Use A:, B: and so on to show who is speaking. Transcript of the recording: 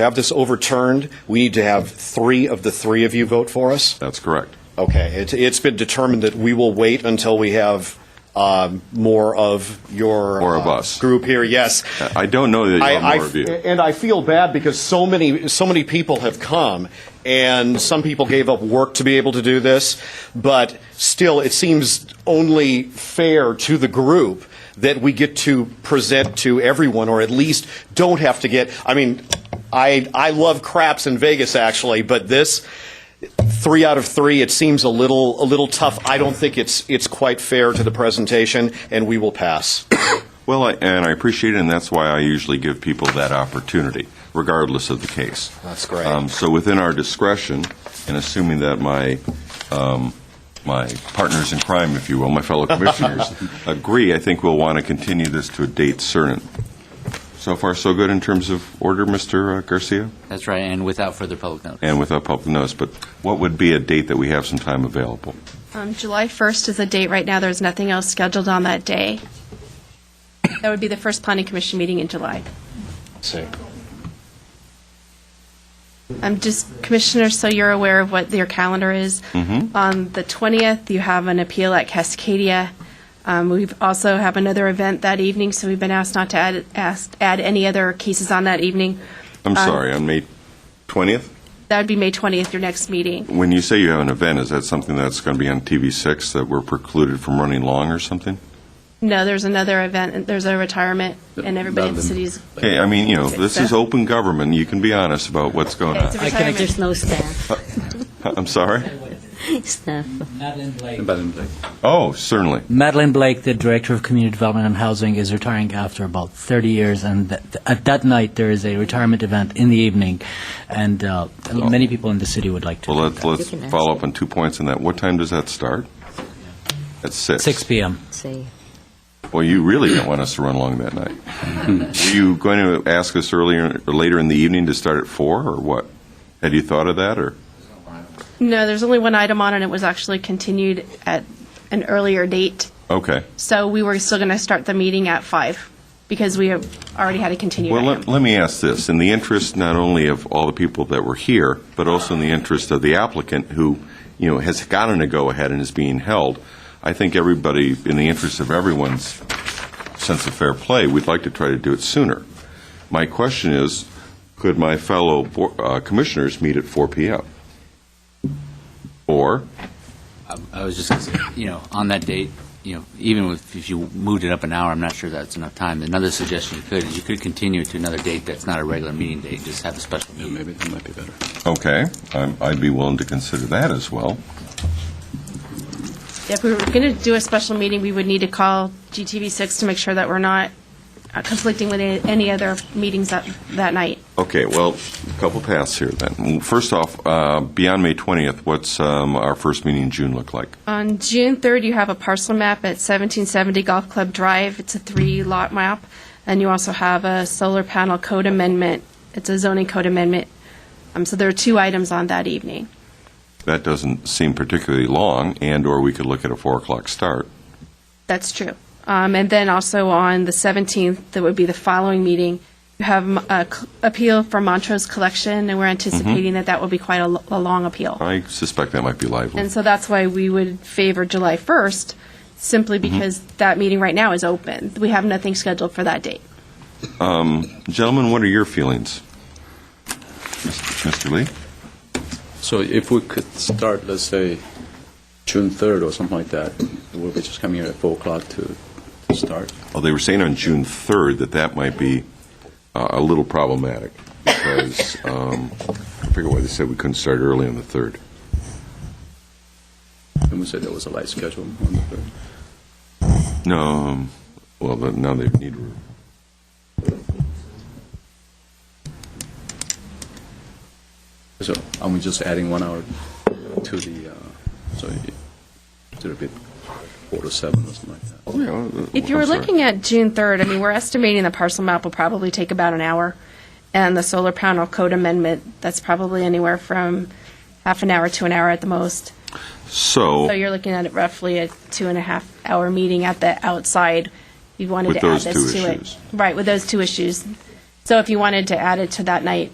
A: have this overturned, we need to have three of the three of you vote for us?
B: That's correct.
A: Okay, it, it's been determined that we will wait until we have um, more of your
B: More of
A: uh,
B: us.
A: group here. Yes,
B: I don't know that you have more of you.
A: and I feel bad because so many so many people have come, and some people gave up work to be able to do this. But still, it seems only fair to the group that we get to present to everyone, or at least don't have to get. I mean, I I love craps in Vegas actually, but this. Three out of three. It seems a little a little tough. I don't think it's it's quite fair to the presentation, and we will pass.
B: Well, I- and I appreciate it, and that's why I usually give people that opportunity, regardless of the case.
A: That's great.
B: Um, So within our discretion, and assuming that my, um, my partners in crime, if you will, my fellow commissioners, agree, I think we'll want to continue this to a date certain. So far, so good in terms of order, Mr. Garcia?
C: That's right, and without further public notice.
B: And without public notice, but what would be a date that we have some time available?
D: Um, July 1st is the date right now. There's nothing else scheduled on that day. That would be the first planning commission meeting in July.
A: see.
D: Um, just commissioners, so you're aware of what your calendar is. On the 20th, you have an appeal at Cascadia. Um, we also have another event that evening, so we've been asked not to add, ask, add any other cases on that evening.
B: I'm sorry, on May 20th?
D: That would be May 20th, your next meeting.
B: When you say you have an event, is that something that's going to be on TV6 that we're precluded from running long or something?
D: No, there's another event. and There's a retirement, and everybody in the city's.
B: Okay, I mean, you know, this is open government, you can be honest about what's going
D: It's
B: on.
D: a
E: I can,
D: retirement.
E: there's no staff.
B: I'm sorry?
E: Staff.
F: Madeline Blake.
B: Oh, certainly.
F: Madeline Blake, the Director of Community Development and Housing, is retiring after about 30 years, and th- at that night, there is a retirement event in the evening, and uh, many people in the city would like to.
B: Well,
F: do
B: let's,
F: that.
B: let's
E: can ask.
B: follow up on two points on that. What time does that start? At 6?
F: 6 p.m.
E: See.
B: Well, you really don't want us to run long that night. Were you going to ask us earlier, or later in the evening to start at 4, or what? Had you thought of that, or?
D: No, there's only one item on, and it was actually continued at an earlier date.
B: Okay.
D: So we were still going to start the meeting at five because we have already had a continued
B: Well, let,
D: item.
B: let me ask this, in the interest not only of all the people that were here, but also in the interest of the applicant who, you know, has gotten a go-ahead and is being held, I think everybody, in the interest of everyone's sense of fair play, we'd like to try to do it sooner. My question is, could my fellow bo- uh, commissioners meet at 4 PM? Or,
C: I was just, gonna say, you know, on that date, you know, even with- if you moved it up an hour, I'm not sure that's enough time. Another suggestion you could, is you could continue to another date that's not a regular meeting date, just have a special meeting.
G: Maybe that might be better.
B: okay, I'm- I'd be willing to consider that as well.
D: If we were going to do a special meeting, we would need to call GTV6 to make sure that we're not uh, conflicting with any- any other meetings that, that night.
B: Okay, well, a couple paths here then. First off, uh, beyond May 20th, what's um, our first meeting in June look like?
D: On June 3rd, you have a parcel map at 1770 Golf Club Drive. It's a three-lot map. And you also have a solar panel code amendment. It's a zoning code amendment. Um, So there are two items on that evening.
B: That doesn't seem particularly long, and/or we could look at a 4 o'clock start.
D: That's true. Um, And then also on the 17th, that would be the following meeting, you have um, a c- appeal for Montrose Collection, and we're anticipating that that will be quite a lo- a long appeal.
B: I suspect that might be lively.
D: And so that's why we would favor July 1st, simply because that meeting right now is open. We have nothing scheduled for that date.
B: Um, Gentlemen, what are your feelings? Mr. Lee?
G: So if we could start, let's say, June 3rd or something like that, we'll be just coming here at 4 o'clock to to start.
B: Well, they were saying on June 3rd that that might be uh, a little problematic, because, um, I forget why they said we couldn't start early on the 3rd.
G: And we said there was a light schedule on the 3rd.
B: No, um, well, then now they need,
G: So are we just adding one hour to the, uh, so it- it'll be 4 to 7 or something like that?
B: you know, uh,
D: If you were
B: I'm sorry.
D: looking at June 3rd, I mean, we're estimating the parcel map will probably take about an hour, and the solar panel code amendment, that's probably anywhere from half an hour to an hour at the most. So you're looking at it roughly a two and a half hour meeting at the outside. You wanted
B: With
D: to add
B: those two
D: this to it.
B: issues.
D: Right, with those two issues. So if you wanted to add it to that night,